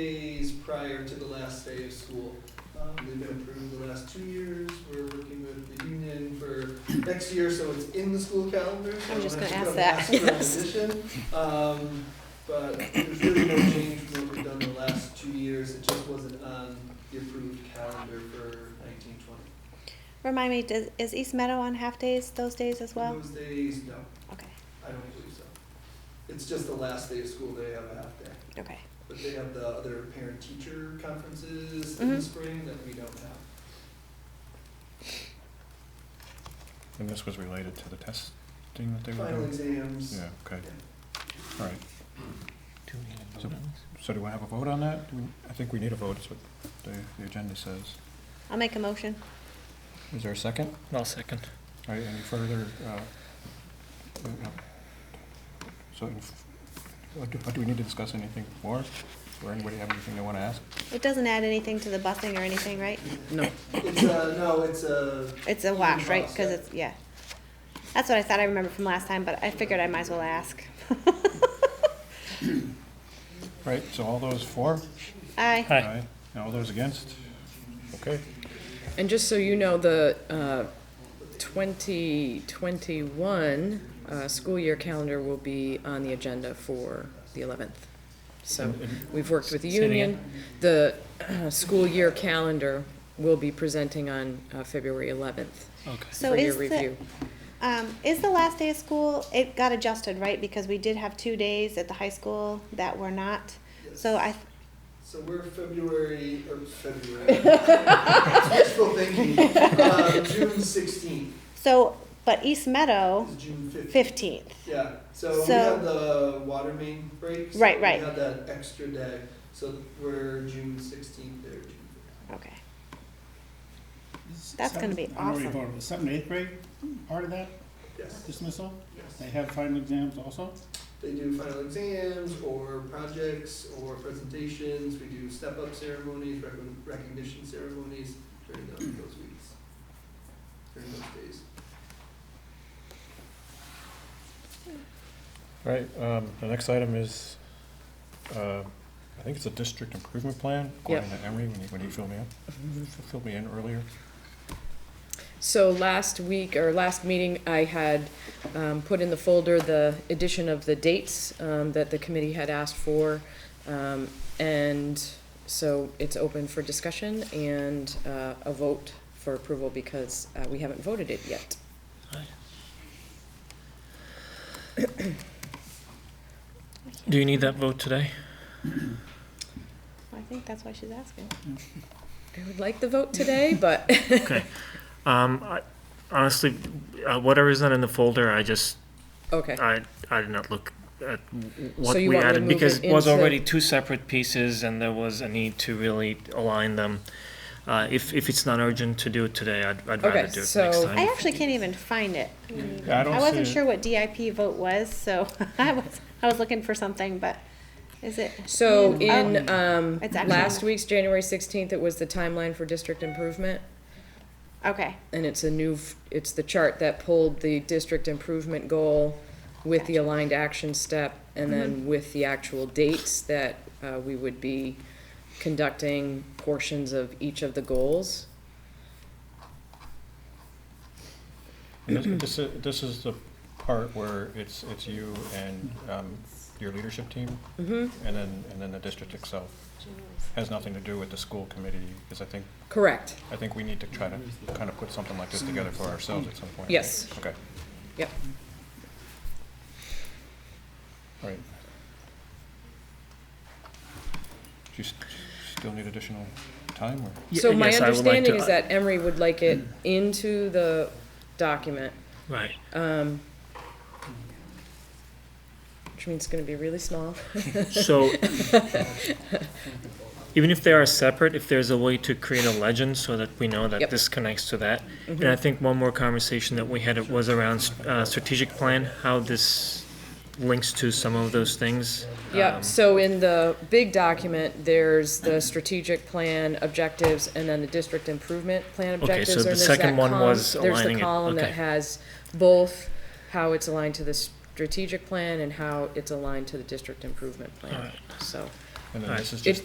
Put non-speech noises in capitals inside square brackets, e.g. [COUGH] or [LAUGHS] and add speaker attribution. Speaker 1: days prior to the last day of school. Um, They've been approved the last two years, we're working with the union for next year, so it's in the school calendar. so
Speaker 2: I'm just
Speaker 1: that's
Speaker 2: gonna
Speaker 1: put
Speaker 2: ask
Speaker 1: up
Speaker 2: that,
Speaker 1: last
Speaker 2: yes.
Speaker 1: year in addition. Um, But there's really no change from what we've done the last two years, it just wasn't on the approved calendar for nineteen twenty.
Speaker 2: Remind me, does, is East Meadow on half days those days as well?
Speaker 1: Those days, no,
Speaker 2: Okay,
Speaker 1: I don't believe so. It's just the last day of school, they have a half day.
Speaker 2: okay.
Speaker 1: But they have the other parent-teacher conferences in the
Speaker 2: Mhm.
Speaker 1: spring that we don't have.
Speaker 3: And this was related to the testing that they were
Speaker 1: Final
Speaker 3: doing?
Speaker 1: exams.
Speaker 3: Yeah, okay, all right. So- So do I have a vote on that? Do we- I think we need a vote, is what the, the agenda says.
Speaker 2: I'll make a motion.
Speaker 3: Is there a second?
Speaker 4: I'll second.
Speaker 3: All right, any further, uh, uh, so, if- what do, what do we need to discuss anything more? Or anybody have anything they want to ask?
Speaker 2: It doesn't add anything to the busing or anything, right?
Speaker 1: It's a, no, it's uh, a,
Speaker 2: It's a wash, right? Because it's, yeah. That's what I thought I remembered from last time, but I figured I might as well ask. [LAUGHS]
Speaker 3: Right, so all those for?
Speaker 2: Aye.
Speaker 4: Aye.
Speaker 3: And all those against? Okay,
Speaker 5: And just so you know, the uh, 2021 uh, school year calendar will be on the agenda for the 11th. So we've worked with the
Speaker 4: Say it again.
Speaker 5: union. The uh, school year calendar will be presenting on uh, February 11th
Speaker 4: Okay.
Speaker 2: So
Speaker 5: for your
Speaker 2: is the,
Speaker 5: review.
Speaker 2: um, is the last day of school, it got adjusted, right? Because we did have two days at the high school that were not.
Speaker 1: yes.
Speaker 2: So I,
Speaker 1: So we're February, or
Speaker 2: [LAUGHS]
Speaker 1: February. Wishful thinking, uh, June sixteenth
Speaker 2: so, but East Meadow,
Speaker 1: is June fifteenth.
Speaker 2: fifteenth.
Speaker 1: Yeah, so we
Speaker 2: Oh. So-
Speaker 1: had the water main break. so
Speaker 2: Right, right.
Speaker 1: We had that extra day, so we're June sixteenth or June fifteenth.
Speaker 2: Okay. That's gonna be
Speaker 6: I already
Speaker 2: awesome.
Speaker 6: voted. The seventh and eighth grade, part of that
Speaker 1: Yes,
Speaker 6: dismissal, they
Speaker 1: yes.
Speaker 6: have final exams also?
Speaker 1: They do final exams or projects or presentations. We do step-up ceremonies, rec- recognition ceremonies during those, those weeks, during those days.
Speaker 3: all right, um, the next item is, uh, I think it's a district improvement plan, according to Emery, when he, when he filled me in, filled me in earlier.
Speaker 5: So last week, or last meeting, I had um, put in the folder the addition of the dates um, that the committee had asked for. Um, And so it's open for discussion and uh, a vote for approval because uh, we haven't voted it yet.
Speaker 4: Do you need that vote today?
Speaker 2: I think that's why she's asking.
Speaker 5: I would like the vote today, but [LAUGHS]
Speaker 4: Okay. Um, I, honestly, uh, whatever is not in the folder, I just,
Speaker 5: okay.
Speaker 4: I, I did not look at what
Speaker 5: Eh. So you
Speaker 4: we
Speaker 5: want me to
Speaker 4: added
Speaker 5: move
Speaker 4: because
Speaker 5: it
Speaker 4: it was
Speaker 5: into-
Speaker 4: already two separate pieces and there was a need to really align them. Uh, if, if it's not urgent to do it today, I'd, I'd rather
Speaker 5: Okay,
Speaker 4: do it next
Speaker 5: so-
Speaker 4: time.
Speaker 2: I actually can't even find it. I mean,
Speaker 3: Yeah, I don't
Speaker 2: I wasn't
Speaker 3: see it.
Speaker 2: sure what DIP vote was, so [LAUGHS] I was, I was looking for something, but is it?
Speaker 5: So
Speaker 2: Oh,
Speaker 5: in um,
Speaker 2: It's actually-
Speaker 5: last week's, January 16th, it was the timeline for district improvement.
Speaker 2: Okay,
Speaker 5: And it's a new, f- it's the chart that pulled the district improvement goal with the aligned action step and then with the actual dates that uh, we would be conducting portions of each of the goals.
Speaker 3: And This this is, this is the part where it's, it's you and um, your leadership team,
Speaker 5: Mm-hmm.
Speaker 3: and then, and then the district itself. Has nothing to do with the school committee, because I think,
Speaker 5: Correct,
Speaker 3: I think we need to try to kind of put something like this together for ourselves at some point.
Speaker 5: yes.
Speaker 3: Okay.
Speaker 5: Yep.
Speaker 3: All right. Do you s- still need additional time, or?
Speaker 4: Y-
Speaker 5: So my
Speaker 4: yes, I would like to- uh, Mm.
Speaker 5: understanding is that Emery would like it into the document,
Speaker 4: Right.
Speaker 5: um, which means it's gonna be really small.
Speaker 4: So, even if they are separate, if there's a way to create a legend so that we know that
Speaker 5: Yep. Mm-hmm.
Speaker 4: this connects to that. And I think one more conversation that we had was around uh, strategic plan, how this links to some of those things. Um,
Speaker 5: Yep, so in the big document, there's the strategic plan objectives and then the district improvement plan
Speaker 4: Okay, so
Speaker 5: objectives.
Speaker 4: the
Speaker 5: and there's
Speaker 4: second
Speaker 5: that
Speaker 4: one
Speaker 5: column-
Speaker 4: was
Speaker 5: There's
Speaker 4: aligning
Speaker 5: the
Speaker 4: it,
Speaker 5: column that
Speaker 4: okay.
Speaker 5: has both how it's aligned to the strategic plan and how it's aligned to the district improvement
Speaker 4: All
Speaker 5: plan,
Speaker 4: right.
Speaker 5: so.
Speaker 3: And then
Speaker 4: Alright.
Speaker 3: this is
Speaker 5: It,
Speaker 3: just